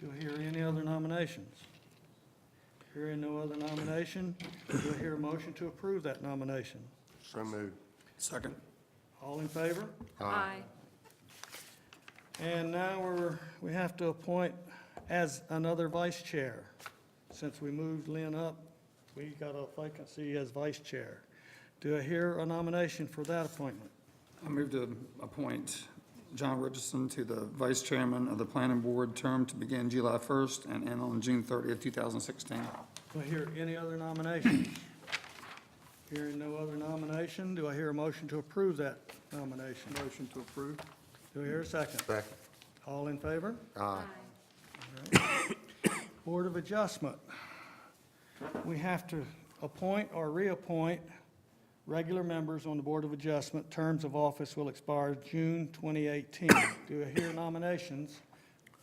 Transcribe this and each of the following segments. Do I hear any other nominations? Hearing no other nomination, do I hear a motion to approve that nomination? So moved. Second. All in favor? Aye. And now we're, we have to appoint as another vice chair. Since we moved Lynn up, we got a vacancy as vice chair. Do I hear a nomination for that appointment? I move to appoint John Richardson to the Vice Chairman of the Planning Board, term to begin July 1st and end on June 30th, 2016. Do I hear any other nominations? Hearing no other nomination, do I hear a motion to approve that nomination? Motion to approve. Do I hear a second? Second. All in favor? Aye. Board of Adjustment. We have to appoint or reappoint regular members on the Board of Adjustment. Terms of office will expire June 2018. Do I hear nominations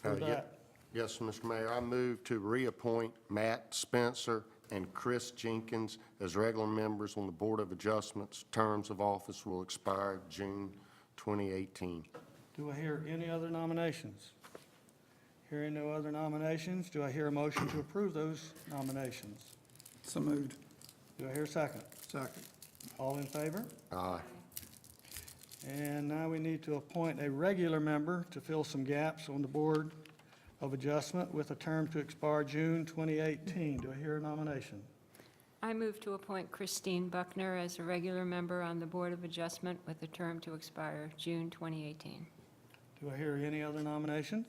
for Uh, ye- that? Yes, Mr. Mayor, I move to reappoint Matt Spencer and Chris Jenkins as regular members on the Board of Adjustments. Terms of office will expire June 2018. Do I hear any other nominations? Hearing no other nominations, do I hear a motion to approve those nominations? So moved. Do I hear a second? Second. All in favor? Aye. And now we need to appoint a regular member to fill some gaps on the Board of Adjustment with a term to expire June 2018. Do I hear a nomination? I move to appoint Christine Buckner as a regular member on the Board of Adjustment with a term to expire June 2018. Do I hear any other nominations?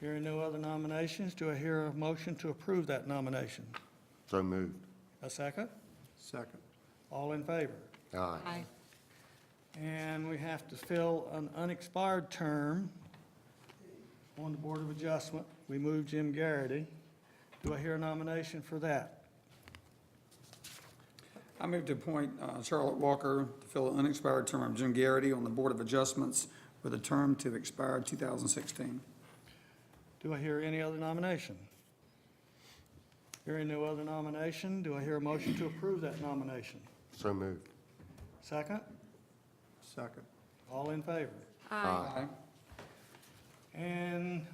Hearing no other nominations, do I hear a motion to approve that nomination? So moved. A second? Second. All in favor? Aye. Aye. And we have to fill an unexpired term on the Board of Adjustment. We moved Jim Garrity. Do I hear a nomination for that? I move to appoint uh, Charlotte Walker to fill the unexpired term of Jim Garrity on the Board of Adjustments with a term to expire 2016. Do I hear any other nomination? Hearing no other nomination, do I hear a motion to approve that nomination? So moved. Second? Second. All in favor? Aye. Aye. And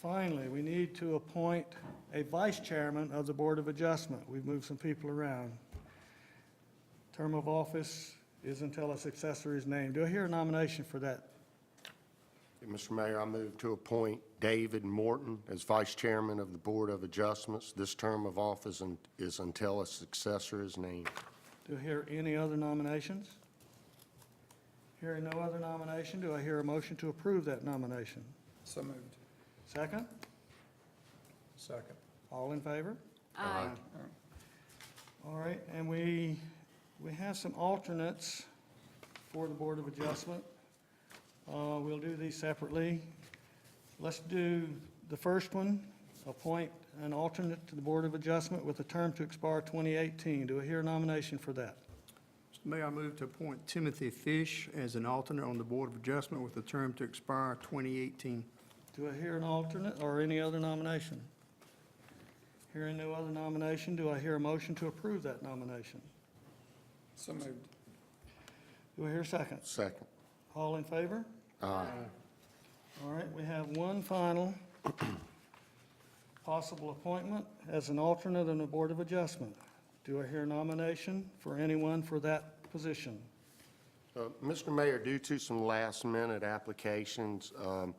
finally, we need to appoint a vice chairman of the Board of Adjustment. We've moved some people around. Term of office is until a successor is named. Do I hear a nomination for that? Mr. Mayor, I move to appoint David Morton as Vice Chairman of the Board of Adjustments. This term of office un- is until a successor is named. Do I hear any other nominations? Hearing no other nomination, do I hear a motion to approve that nomination? So moved. Second? Second. All in favor? Aye. All right, and we, we have some alternates for the Board of Adjustment. Uh, We'll do these separately. Let's do the first one, appoint an alternate to the Board of Adjustment with a term to expire 2018. Do I hear a nomination for that? Mr. Mayor, I move to appoint Timothy Fish as an alternate on the Board of Adjustment with a term to expire 2018. Do I hear an alternate or any other nomination? Hearing no other nomination, do I hear a motion to approve that nomination? So moved. Do I hear a second? Second. All in favor? Aye. All right, we have one final possible appointment as an alternate on the Board of Adjustment. Do I hear a nomination for anyone for that position? Uh, Mr. Mayor, due to some last-minute applications, um,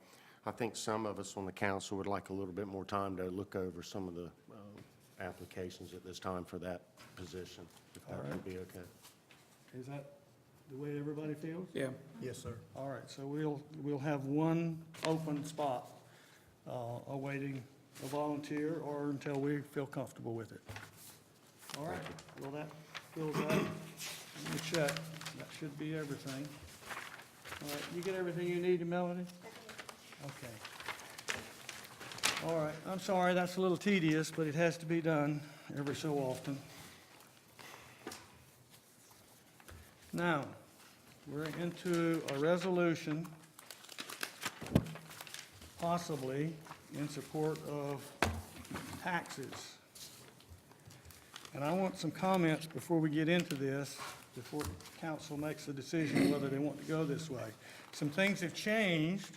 I think some of us on the council would like a little bit more time to look over some of the um, applications at this time for that position, if that would be okay. Is that the way everybody feels? Yeah. Yes, sir. All right, so we'll, we'll have one open spot uh, awaiting a volunteer or until we feel comfortable with it. All right, well, that fills out, let me check, that should be everything. All right, you get everything you need, Melody? Okay. All right, I'm sorry, that's a little tedious, but it has to be done every so often. Now, we're into a resolution, possibly in support of taxes. And I want some comments before we get into this, before council makes a decision whether they want to go this way. Some things have changed